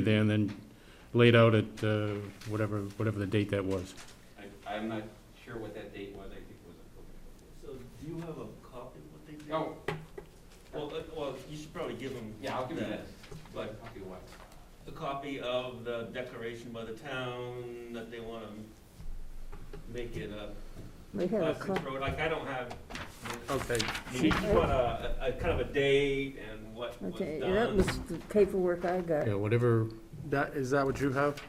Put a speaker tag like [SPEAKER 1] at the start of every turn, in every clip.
[SPEAKER 1] there and then laid out at uh, whatever, whatever the date that was.
[SPEAKER 2] I, I'm not sure what that date was, I think it was October.
[SPEAKER 3] So do you have a copy of what they did?
[SPEAKER 2] No,
[SPEAKER 3] Oh, Well, uh, well, you should probably give them.
[SPEAKER 2] Oh, yeah, I'll give you that.
[SPEAKER 3] But
[SPEAKER 2] Copy of what?
[SPEAKER 3] a copy of the declaration by the town that they want to make it a
[SPEAKER 4] We have a
[SPEAKER 3] Essex
[SPEAKER 4] clock.
[SPEAKER 3] road, like I don't have,
[SPEAKER 1] Okay.
[SPEAKER 3] you need to want a, a kind of a date and what was
[SPEAKER 4] Okay, that was
[SPEAKER 3] done.
[SPEAKER 4] the paperwork I got.
[SPEAKER 1] Yeah, whatever,
[SPEAKER 5] That, is that what you have?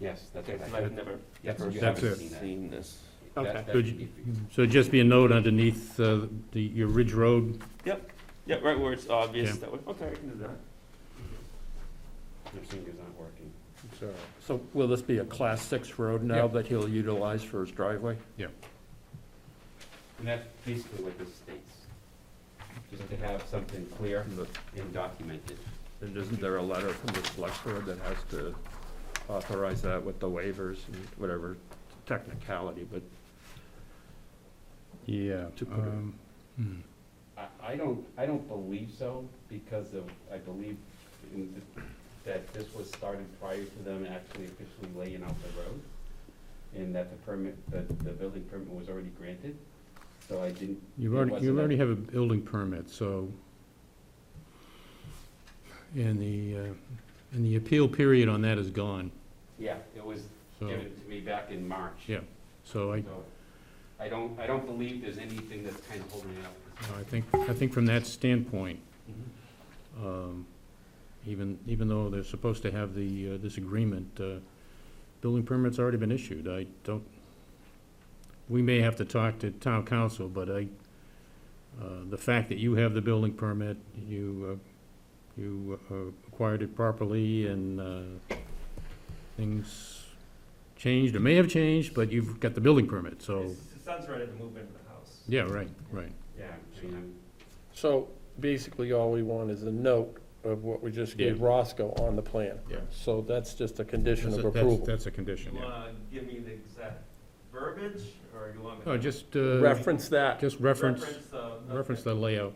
[SPEAKER 2] Yes, that's
[SPEAKER 3] Okay, 'cause I've never,
[SPEAKER 2] That's
[SPEAKER 3] never
[SPEAKER 2] it.
[SPEAKER 3] haven't
[SPEAKER 1] That's
[SPEAKER 2] it.
[SPEAKER 3] seen this.
[SPEAKER 1] Okay.
[SPEAKER 2] That- that
[SPEAKER 1] Could
[SPEAKER 2] should
[SPEAKER 1] you-
[SPEAKER 2] be for you.
[SPEAKER 1] so it'd just be a note underneath uh, the, your Ridge Road.
[SPEAKER 3] Yeah, right where it's obvious,
[SPEAKER 1] Yeah.
[SPEAKER 3] that would, okay, I can do that.
[SPEAKER 2] Your finger's not working.
[SPEAKER 6] So will this be a class six road
[SPEAKER 1] Yeah.
[SPEAKER 6] now that he'll utilize for his driveway?
[SPEAKER 2] And that's basically what this states, just to have something clear
[SPEAKER 6] And the-
[SPEAKER 2] and documented.
[SPEAKER 6] And isn't there a letter from the select board that has to authorize that with the waivers and whatever technicality, but
[SPEAKER 1] Yeah.
[SPEAKER 6] To put it-
[SPEAKER 1] um, hmm.
[SPEAKER 2] I, I don't, I don't believe so, because of, I believe in th- that this was started prior to them actually officially laying out the road, and that the permit, that the building permit was already granted, so I didn't.
[SPEAKER 1] You've
[SPEAKER 2] it
[SPEAKER 1] already, you
[SPEAKER 2] wasn't a-
[SPEAKER 1] already have a building permit, so. And the, uh, and the appeal period on that is gone,
[SPEAKER 2] Yeah, it was
[SPEAKER 1] so,
[SPEAKER 2] given to me back in March.
[SPEAKER 1] Yeah. so I,
[SPEAKER 2] So I don't, I don't believe there's anything that's kind of holding it up. at this
[SPEAKER 1] I think, I think from that standpoint,
[SPEAKER 2] point.
[SPEAKER 1] um, even, even though they're supposed to have the, uh, this agreement, uh, building permit's already been issued. I don't, we may have to talk to town council, but I, uh, the fact that you have the building permit, you, uh, you uh, acquired it properly and uh, things changed, or may have changed, but you've got the building permit, so,
[SPEAKER 3] His his son's ready to move into the house.
[SPEAKER 1] yeah, right, right.
[SPEAKER 2] Yeah, I mean, I'm-
[SPEAKER 5] So basically, all we want is a note of what we just gave
[SPEAKER 1] Yeah.
[SPEAKER 5] Roscoe on the plan.
[SPEAKER 1] Yeah.
[SPEAKER 5] So that's just a condition of
[SPEAKER 1] That's a- that's-
[SPEAKER 5] approval.
[SPEAKER 1] That's a condition,
[SPEAKER 3] You
[SPEAKER 1] yeah.
[SPEAKER 3] wanna give me the exact verbiage, or you want me to? uh,
[SPEAKER 1] Oh, just, uh,
[SPEAKER 5] Reference that.
[SPEAKER 1] just reference,
[SPEAKER 3] the-
[SPEAKER 1] reference the layout.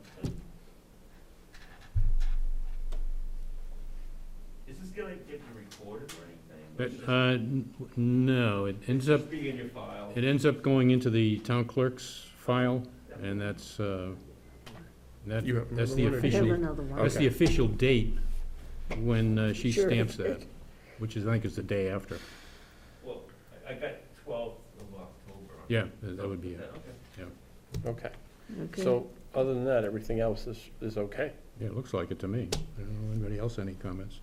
[SPEAKER 3] Is this gonna get you recorded or anything?
[SPEAKER 1] But,
[SPEAKER 3] It's just-
[SPEAKER 1] uh, n- no, it ends up,
[SPEAKER 3] Just be in your file.
[SPEAKER 1] it ends up going into the town clerk's file, and that's, uh, that,
[SPEAKER 5] You have
[SPEAKER 1] that's the
[SPEAKER 5] another one or
[SPEAKER 4] I have
[SPEAKER 1] official,
[SPEAKER 4] another one.
[SPEAKER 1] that's the official date when uh, she
[SPEAKER 4] Sure.
[SPEAKER 1] stamps that, which is, I think is the day after.
[SPEAKER 3] Well, I- I got twelfth of October. on-
[SPEAKER 1] Yeah, that that would be
[SPEAKER 3] Yeah,
[SPEAKER 1] it.
[SPEAKER 3] okay.
[SPEAKER 5] Okay.
[SPEAKER 4] Okay.
[SPEAKER 5] So other than that, everything else is, is okay.
[SPEAKER 1] Yeah, it looks like it to me. I don't know, anybody else, any comments?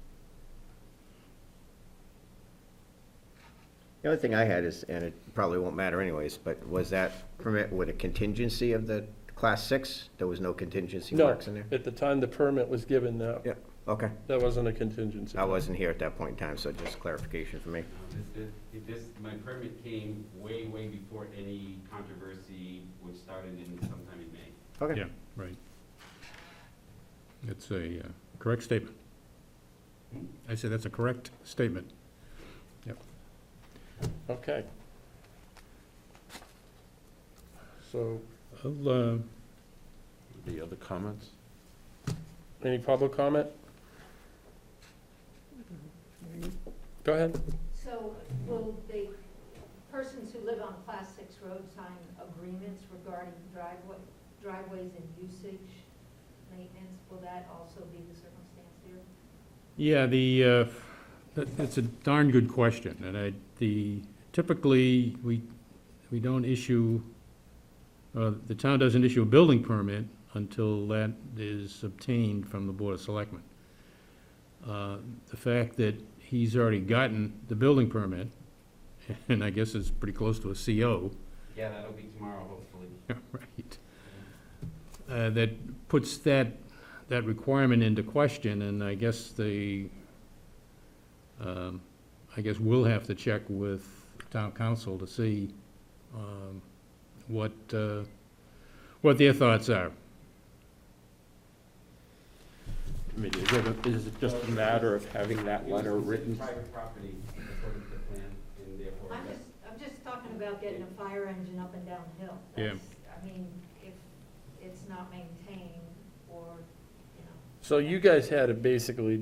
[SPEAKER 7] The only thing I had is, and it probably won't matter anyways, but was that permit with a contingency of the class six? There was no contingency
[SPEAKER 5] No,
[SPEAKER 7] marks in there?
[SPEAKER 5] at the time the permit was given, no,
[SPEAKER 7] Yeah, okay.
[SPEAKER 5] that wasn't a contingency.
[SPEAKER 7] I wasn't here at that point in time, so just clarification for me.
[SPEAKER 2] Um, This, this- this, my permit came way, way before any controversy, which started in sometime in May.
[SPEAKER 7] Okay.
[SPEAKER 1] Yeah, right. It's a uh, correct statement. I say that's a correct statement.
[SPEAKER 5] Okay. So
[SPEAKER 1] I'll, uh,
[SPEAKER 6] the other comments?
[SPEAKER 5] any public comment? Go ahead.
[SPEAKER 8] So will the persons who live on Class 6 road sign agreements regarding driveway, driveways and usage maintenance? Will that also be the circumstance here?
[SPEAKER 1] Yeah, the, uh, that- that's a darn good question, and I, the, typically, we, we don't issue, uh, the town doesn't issue a building permit until that is obtained from the Board of Selectmen. Uh, The fact that he's already gotten the building permit, and I guess it's pretty close to a CO,
[SPEAKER 2] Yeah, that'll be tomorrow, hopefully.
[SPEAKER 1] right, uh, that puts that, that requirement into question, and I guess the, um, I guess we'll have to check with town council to see um, what, uh, what their thoughts are.
[SPEAKER 6] I mean, is it, is it just a matter of having that letter written?
[SPEAKER 2] Private property, according to the plan, and therefore.
[SPEAKER 8] I'm just, I'm just talking about getting a fire engine up and down the hill.
[SPEAKER 1] Yeah.
[SPEAKER 8] That's- I mean, if it's not maintained or, you know.
[SPEAKER 5] So you guys had to basically